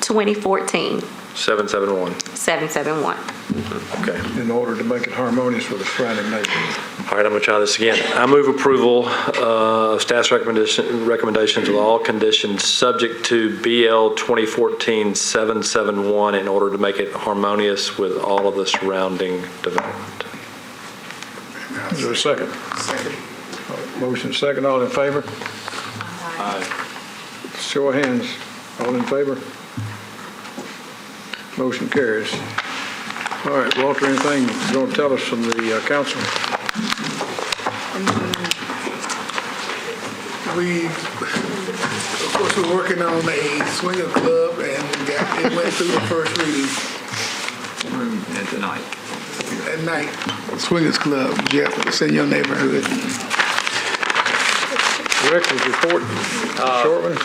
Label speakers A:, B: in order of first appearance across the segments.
A: 2014,
B: 771.
A: 771.
B: Okay.
C: in order to make it harmonious with the surrounding neighborhood.
B: All right, I'm going to try this again. I move approval uh, of staff's recommendation, recommendations with all conditions subject to BL 2014-771 in order to make it harmonious with all of the surrounding development.
C: Is there a second? Motion second, all in favor? Show of hands, all in favor? Motion carries. All right, Walter, anything you want to tell us from the uh, council?
D: We, of course, we're working on a swinger club and we got, it went through the first reading
E: And tonight.
D: at night. Swingers Club, Jeff, it's in your neighborhood.
C: Director's report, short one?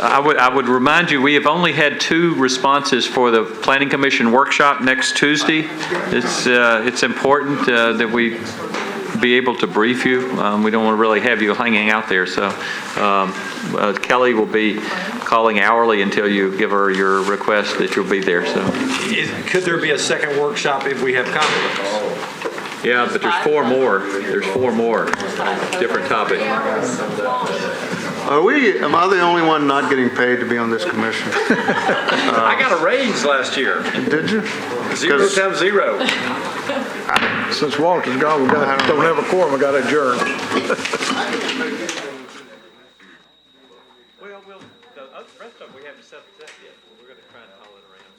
E: I would, I would remind you, we have only had two responses for the Planning Commission workshop next Tuesday. It's, uh, it's important uh, that we be able to brief you. Um, We don't want to really have you hanging out there, so um, uh, Kelly will be calling hourly until you give her your request that you'll be there, so.
F: Could there be a second workshop if we have conflicts?
E: Yeah, but there's four more, there's four more, different topic.
G: Are we, am I the only one not getting paid to be on this commission?
B: I got a raise last year.
G: Did you?
B: Zero
G: Because-
B: times zero.
C: Since Walter's gone, we got, don't have a quorum, we got adjourned.